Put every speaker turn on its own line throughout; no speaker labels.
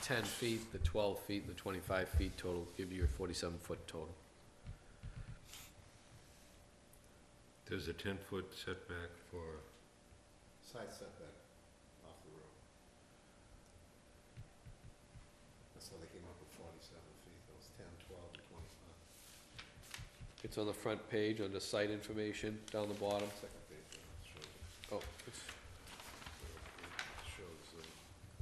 ten feet, the twelve feet, and the twenty-five feet total, give you your forty-seven foot total.
There's a ten-foot setback for,
Side setback off the road. That's how they came up with forty-seven feet, those ten, twelve, and twenty-five,
It's on the front page, under site information, down the bottom.
second page, it
Oh,
shows,
it's,
it shows, uh,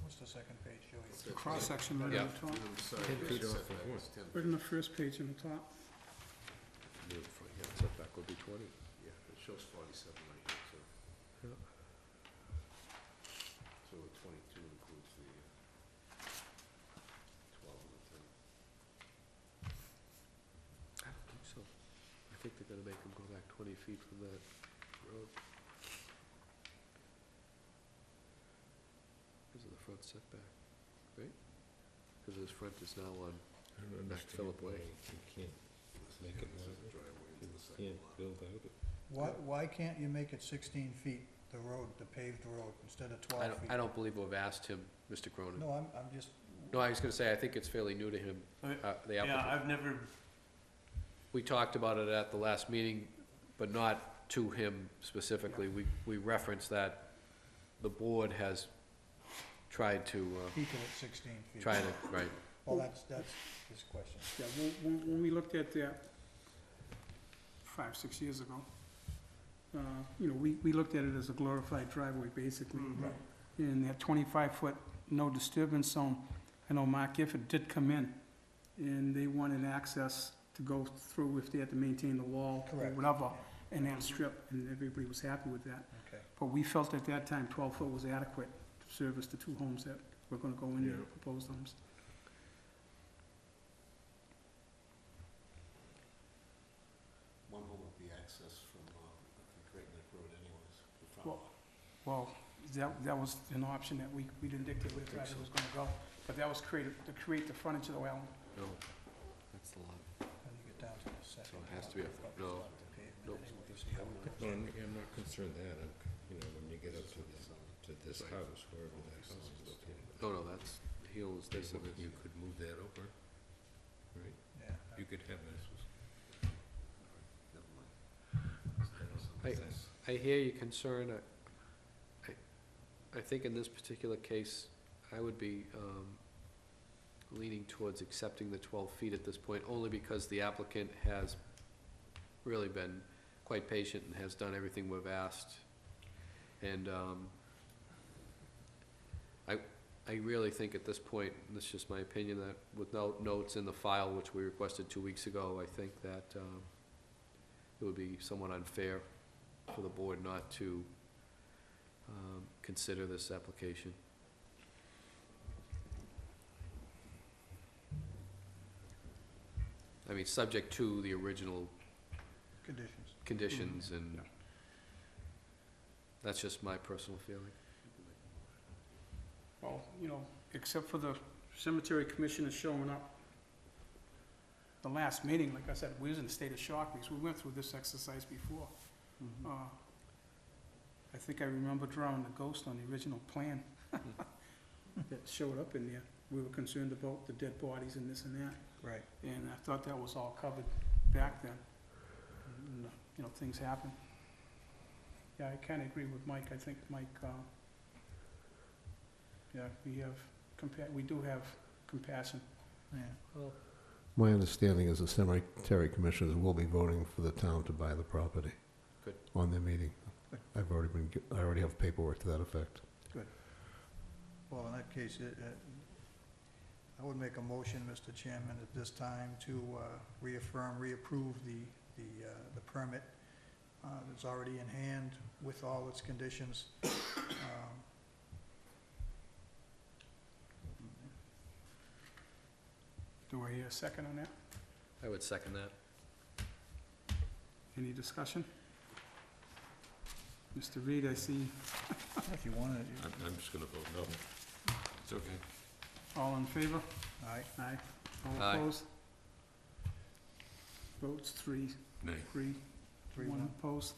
What's the second page,
It's
Joey?
the
The cross-section right
Yeah.
on the top?
minimum side
10 feet
yard
off of
setback
one.
is ten
Right on the first page on the top.
the front yard setback would be twenty.
Yeah, it shows forty-seven right here, so.
Yeah.
So the twenty-two includes the uh, twelve and the ten.
I don't think so. I think they're gonna make them go back twenty feet from that road. Because of the front setback, right? Because his front is now on,
I don't
That's
understand.
Phillip Way.
why You can't, Make it
This is
wider.
a driveway
you
into the second
can't
lot.
build out it.
Why, why can't you make it sixteen feet, the road, the paved road, instead of
I
twelve
don't,
feet?
I don't believe we've asked him, Mr. Cronin.
No, I'm, I'm just,
No, I was gonna say, I think it's fairly new to him,
Okay.
uh, the
Yeah,
applicant.
I've never,
We talked about it at the last meeting, but not to him specifically. We, we referenced that the board has tried to, uh,
keep it at sixteen feet.
try to, right,
Well, that's, that's his question.
Yeah, when- when, when we looked at that five, six years ago, uh, you know, we, we looked at it as a glorified driveway, basically.
Right.
And that twenty-five foot no disturbance zone, I know Mark Gifford did come in, and they wanted access to go through if they had to maintain the wall or
Correct.
whatever, and that strip, and everybody was happy with that.
Okay.
But we felt at that time twelve foot was adequate to service the two homes that were gonna go in there,
Yeah.
proposed homes.
One home would be access from, um, I think Great Neck Road anyways, the front
Well-
lot.
Well, that, that was an option that we, we didn't dictate where the driveway was gonna go, but that was created, to create the frontage of the well.
no, that's the lot.
When you get down to the second.
it has to be a-
lot,
no,
it's not pavement
no,
anyway, so you don't
No, I'm, I'm not concerned that, I'm, you know, when you get up to this, to this house, wherever that house is located.
No, no, that's, he owns this, and
You
this.
could move that over, right?
Yeah.
You could have this.
Never mind.
Hey. I hear your concern, I- I, I think in this particular case, I would be, um, leaning towards accepting the twelve feet at this point, only because the applicant has really been quite patient and has done everything we've asked. And, um, I, I really think at this point, and this is just my opinion, that with no, notes in the file, which we requested two weeks ago, I think that, um, it would be somewhat unfair for the board not to um, consider this application. I mean, subject to the original
Conditions.
conditions and that's just my personal feeling.
Well, you know, except for the cemetery commissioner showing up. The last meeting, like I said, we was in a state of shock because we went through this exercise before. Uh, I think I remember drawing a ghost on the original plan that showed up in there. We were concerned about the dead bodies and this and that.
Right.
And I thought that was all covered back then. And, uh, You know, things happen. Yeah, I kinda agree with Mike, I think Mike, uh, yeah, we have compa- we do have compassion.
Yeah.
My understanding is the cemetery commissioners will be voting for the town to buy the property.
Good.
On their meeting. I've already been, I already have paperwork to that effect.
Well, in that case, it, it, I would make a motion, Mr. Chairman, at this time to uh, reaffirm, reapprove the, the, uh, the permit uh, that's already in hand with all its conditions. Um,
Do I hear a second on that?
I would second that.
Any discussion? Mr. Reed, I see
If you want to,
I'm, I'm just gonna vote no. It's okay.
all in favor?
all right,
Aye. All
Aye.
opposed? Votes three,
Nay.
three,
three,
one
one.
opposed.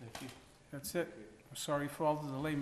thank you.
That's it. Sorry for all the delay,